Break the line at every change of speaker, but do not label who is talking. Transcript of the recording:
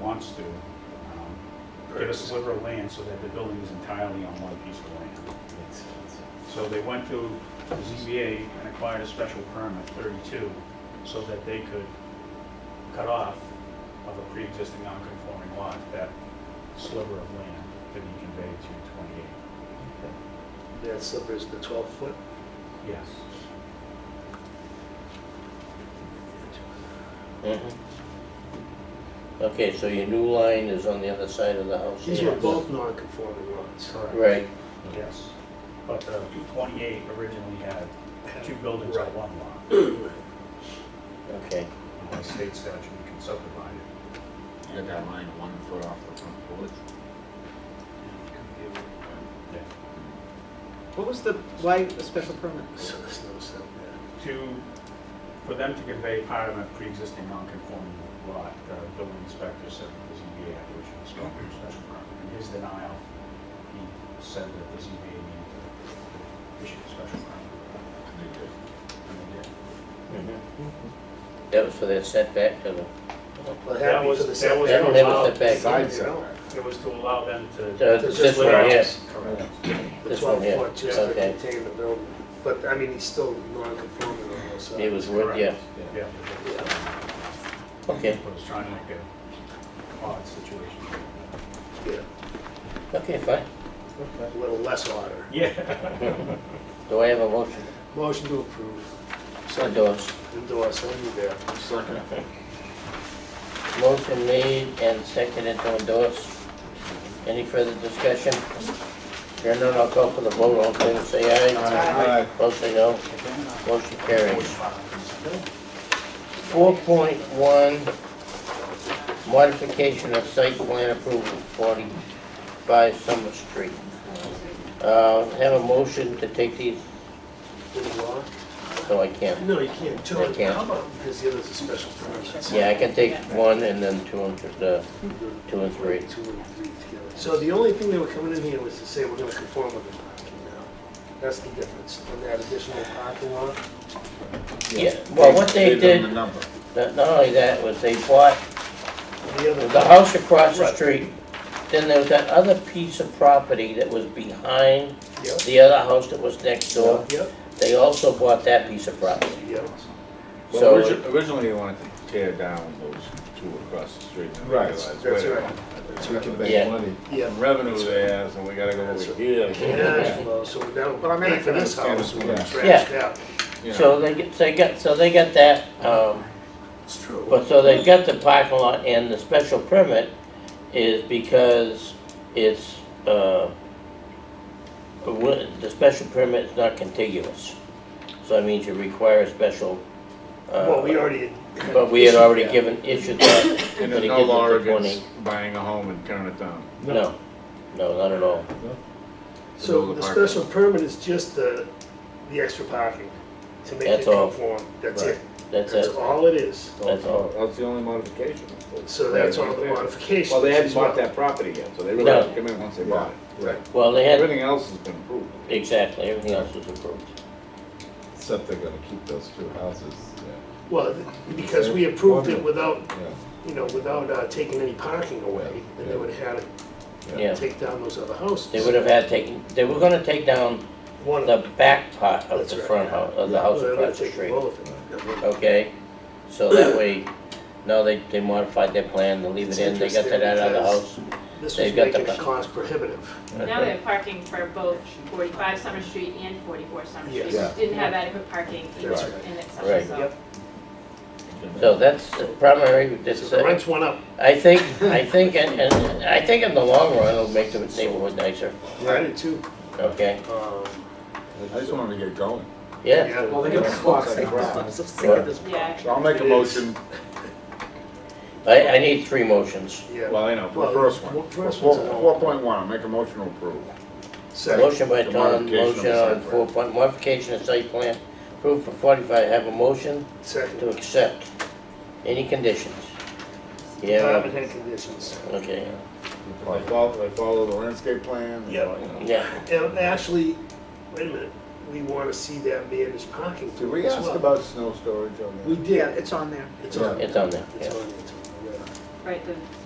wants to, um, get a sliver of land so that the building is entirely on one piece of land.
Makes sense.
So they went to the ZBA and acquired a special permit, 32, so that they could cut off of a pre-existing non-conforming lot, that sliver of land to be conveyed to
That slipper is the 12 foot.
28. Yes.
Mhm. Mm-hmm. Okay, so your new line is on the other side of the house?
These
here?
were both non-conforming lots.
Correct.
Right,
Yes. But the 28 originally had two buildings on one lot.
okay.
by state statute, you can subdivide it.
You got that line one foot off the front porch.
What was the, why a special permit?
So there's no sound
To, for them to convey part of a pre-existing non-conforming lot, the building inspector said that the ZBA had issued a special special permit. In his denial, he said that the ZBA needed to issue a special permit.
And they did.
And they did.
Mhm. That was for that setback to the,
Well,
That
happy
was-
for the
that
setback.
was
that
no
that
allow-
was setback.
Side setback.
It was to allow them
Uh,
to.
This
This one,
one.
yes.
Correct.
The
This one
12
here.
foot just to
Okay.
contain the building. But, I mean, he's still non-conforming on those
It
sides.
was wood, yeah,
Yeah.
okay,
I was trying to make a odd situation.
Yeah,
okay, fine.
a little less water.
Yeah.
Do I have a motion
Motion to approve.
to endorse?
Endorse, I'll be there.
Second.
Motion made and seconded to endorse. Any further discussion? Here none, I'll call for the vote, all in favor, say aye.
Aye.
Opposed, say no. Motion carries. Four point one, modification of site plan approval, forty-five Summer Street. Uh, have a motion to take these,
Didn't walk?
no, I can't.
No, you can't.
I can't.
How about, because the other's a special permit.
Yeah, I can take one and then two and, th- uh, two and three.
Two and three together. So the only thing they were coming in here was to say, we're gonna conform with the parking now. That's the difference, on that additional parking lot.
Yeah, well, what they
Gave them The
did,
number.
not not only that, was they bought
The other,
the house across the
Right.
street, then there was that other piece of property that was behind
yep,
the other house that was next door.
yep,
They also bought that piece of property.
yep.
So-
Well, origi- originally they wanted to tear down those two across the street. and
Right,
realized,
that's
wait a
right.
minute,
That's
We
right.
can
Yeah.
make money,
Yeah.
from revenue there, so we gotta go
That's
over
right.
here.
Cash flow, so we're down, but I meant for this house, we
Yeah.
trashed out.
You know,
So they get, they got, so they got that, um,
It's true.
but so they got the parking lot and the special permit is because it's, uh, a wi- the special permit is not contiguous. So that means you require a special, uh.
Well, we already.
But we had already
Yeah.
given, issued that.
And
but
there's
it
no
gives us
law
the 20.
against buying a home and tearing it down.
No, no, not at all.
So the special permit is just the, the extra parking to make it
That's all.
conform, that's it.
That's
That's
it.
all it is.
That's all.
That's the only modification.
So that's all the modifications.
Well, they hadn't
as well.
bought that property yet, so they really
No.
had to come in once they bought it.
Right.
Well, they had,
Everything else has been approved.
exactly, everything else was approved.
Except they're gonna keep those two houses,
Well, th- because we approved it without, you know, without uh, taking any parking away, and they would have had to
Yeah,
take down those other houses.
they would have had taken, they were gonna take down
One of
the
them.
back part of
That's
the
right.
front house, of the house
They would have
across the
taken
street.
both of them.
Okay, so that way, now they, they modified their plan to leave it
It's
in, they got
interesting
that out of the
because-
house.
This was
They've got the
making it
co-
cost prohibitive.
Now they have parking for both 45 Summer Street and 44 Summer Street,
Yes.
which didn't have adequate parking in
That's right.
in
Right.
itself, so.
Yep.
So that's the primary,
So
that's,
the
uh,
rents went up.
I think, I think, and, and I think in the long run, it'll make the neighborhood nicer,
I did too.
okay?
Um,
I just wanted to get going.
Yeah,
yeah.
they got squawks like
I'm so sick of this
Yeah.
So I'll make a
It is.
motion,
I, I need three motions.
Yeah.
Well, I know, for
Well,
the first one.
well, first
Four-
one's a-
4.1, I'll make a motion to approve.
Second,
Motion by
The
Tom,
modification of
motion
the
on
site
four
plan.
point, modification of site plan, approved for forty-five, have a motion to
second.
accept. Any conditions?
Time
Yeah,
and hand conditions.
okay,
They follow, they follow the landscape plan. they
Yeah.
follow, you know.
yeah.
And actually, wait a minute, we want to see that managed parking
Did
through
we
as
ask
well.
about snow storage on
We
that?
Yeah,
did.
it's on there.
It's on.
It's on there,
It's
yeah.
on, it's on, yeah.
Right, the